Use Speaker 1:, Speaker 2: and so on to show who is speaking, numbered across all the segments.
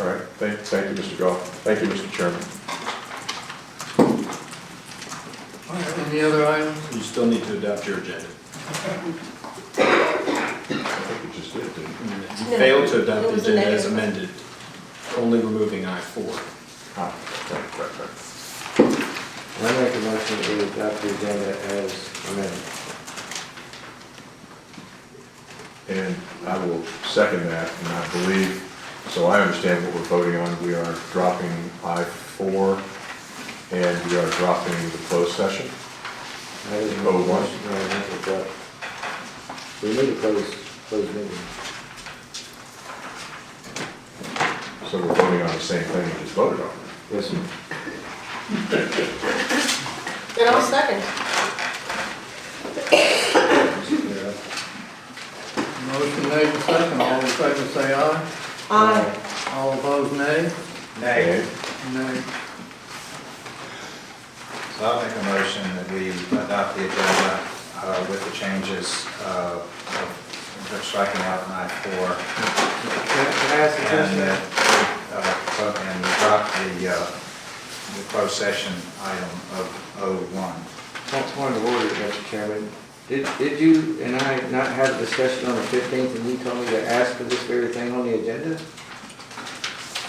Speaker 1: All right, thank, thank you, Mr. Goff. Thank you, Mr. Chairman.
Speaker 2: All right, any other items?
Speaker 3: You still need to adopt your agenda.
Speaker 1: I think you just did, didn't you?
Speaker 3: You
Speaker 4: No,
Speaker 3: failed to
Speaker 4: it
Speaker 3: adopt the
Speaker 4: was a
Speaker 3: agenda
Speaker 4: negative.
Speaker 3: as amended, only removing I four.
Speaker 1: Ah, right, right, right.
Speaker 5: I make a motion to adopt the agenda as amended.
Speaker 1: And I will second that, and I believe, so I understand what we're voting on. We are dropping I four, and we are dropping the closed session.
Speaker 5: I didn't make a
Speaker 1: Oh, what?
Speaker 5: motion, no, I meant to adopt. We need to close, close meeting.
Speaker 1: So we're voting on the same thing we just voted on.
Speaker 5: Yes, sir.
Speaker 4: And I'll second.
Speaker 5: Yeah.
Speaker 2: Motion made and second, all in favor say aye,
Speaker 4: Aye.
Speaker 2: all opposed nay,
Speaker 1: Okay.
Speaker 2: nay.
Speaker 6: So I'll make a motion that we adopt the agenda uh, with the changes uh, of of striking out nine four.
Speaker 5: Can can I ask a
Speaker 6: And,
Speaker 5: question?
Speaker 6: uh, uh, and drop the, uh, the closed session item of O one.
Speaker 5: Point point of order, Mr. Chairman. Did, did you and I not have a discussion on the fifteenth and you told me to ask for this very thing on the agenda?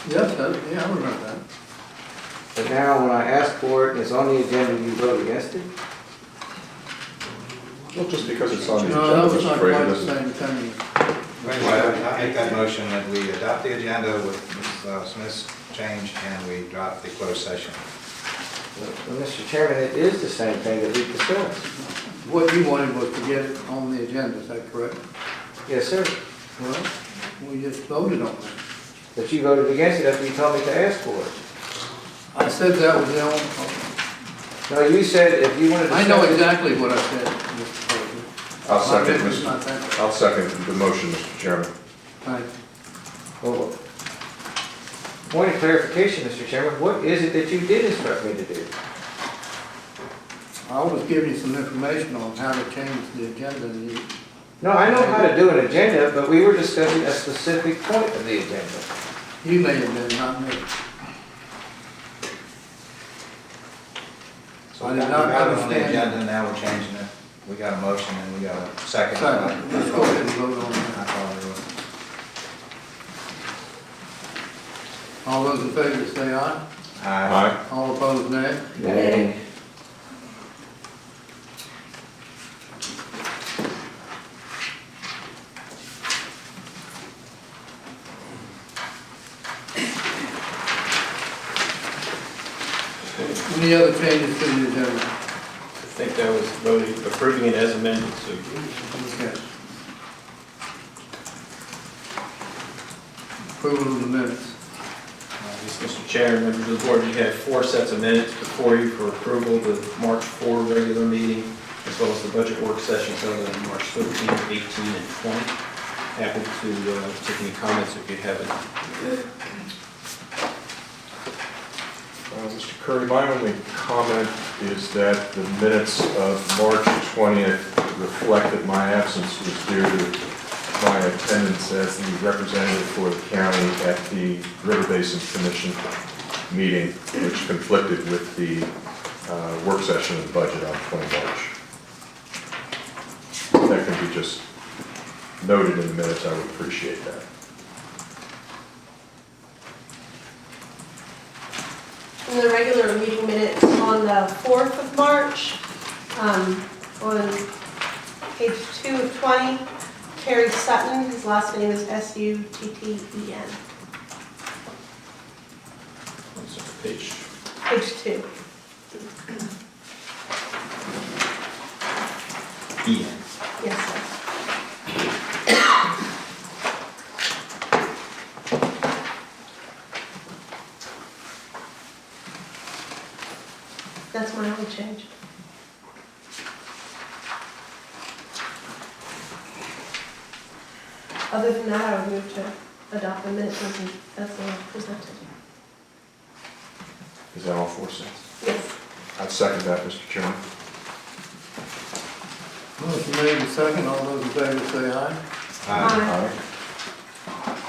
Speaker 2: Yes, that- yeah, I remember that.
Speaker 5: But now when I ask for it and it's on the agenda, you vote against it?
Speaker 1: Well, just because it's on the
Speaker 2: No, that
Speaker 1: agenda,
Speaker 2: was
Speaker 1: Mr.
Speaker 2: not quite
Speaker 1: Brady
Speaker 2: the
Speaker 1: doesn't.
Speaker 2: same thing.
Speaker 6: Anyway, I make that motion that we adopt the agenda with Ms. uh, Smith's change and we drop the closed session.
Speaker 5: Well, Mr. Chairman, it is the same thing that we discussed.
Speaker 2: What you wanted was to get it on the agenda, is that correct?
Speaker 5: Yes, sir.
Speaker 2: Well, we just voted on that.
Speaker 5: But you voted against it after you told me to ask for it.
Speaker 2: I said that was the only,
Speaker 5: No, you said if you wanted to.
Speaker 2: I know exactly what I said, Mr. President.
Speaker 1: I'll second,
Speaker 2: My memory's
Speaker 1: Mr.
Speaker 2: not that-
Speaker 1: I'll second the motion, Mr. Chairman.
Speaker 2: Thank you.
Speaker 5: Well, Point of clarification, Mr. Chairman, what is it that you did instruct me to do?
Speaker 2: I was giving you some information on how to change the agenda, and you,
Speaker 5: No, I know how to do an agenda, but we were discussing a specific point of the agenda.
Speaker 2: you may have been, not me.
Speaker 6: So
Speaker 2: I
Speaker 6: we
Speaker 2: did
Speaker 6: got
Speaker 2: not
Speaker 6: we got it on the
Speaker 2: understand.
Speaker 6: agenda, now we're changing it. We got a motion and we got a second.
Speaker 2: So, let's go ahead and vote on
Speaker 6: I
Speaker 2: that.
Speaker 6: thought we were-
Speaker 2: All those in favor say aye,
Speaker 6: Aye.
Speaker 1: Aye.
Speaker 2: all opposed nay.
Speaker 4: Nay.
Speaker 2: Any other changes to the agenda?
Speaker 3: I think that was voting, approving it as amended, so uh,
Speaker 2: Okay. Approval of the minutes.
Speaker 3: Yes, Mr. Chair, members of the board, you have four sets of minutes before you for approval, the March 4 regular meeting, as well as the budget work sessions held on March 13, 18, and 20. Happy to uh, take any comments if you have any.
Speaker 1: Uh, Mr. Curry, my only comment is that the minutes of March 20th reflect that my absence was due to my attendance as the representative for the county at the River Basin Commission meeting, which conflicted with the uh, work session and budget on 20 March. That can be just noted in the minutes, I would appreciate that.
Speaker 4: In the regular meeting minutes on the 4th of March, um, on page 2 of 20, Terry Sutton, his last name is S-U-T-T-E-N,
Speaker 3: One second, Page
Speaker 4: page 2.
Speaker 3: E.
Speaker 4: Yes, sir. That's my only change. Other than that, I would move to adopt the minutes as as they are presented.
Speaker 1: Is that all four cents?
Speaker 4: Yes.
Speaker 1: I'd second that, Mr. Chairman.
Speaker 2: Motion made in second, all those in favor say aye.
Speaker 6: Aye.
Speaker 1: Aye.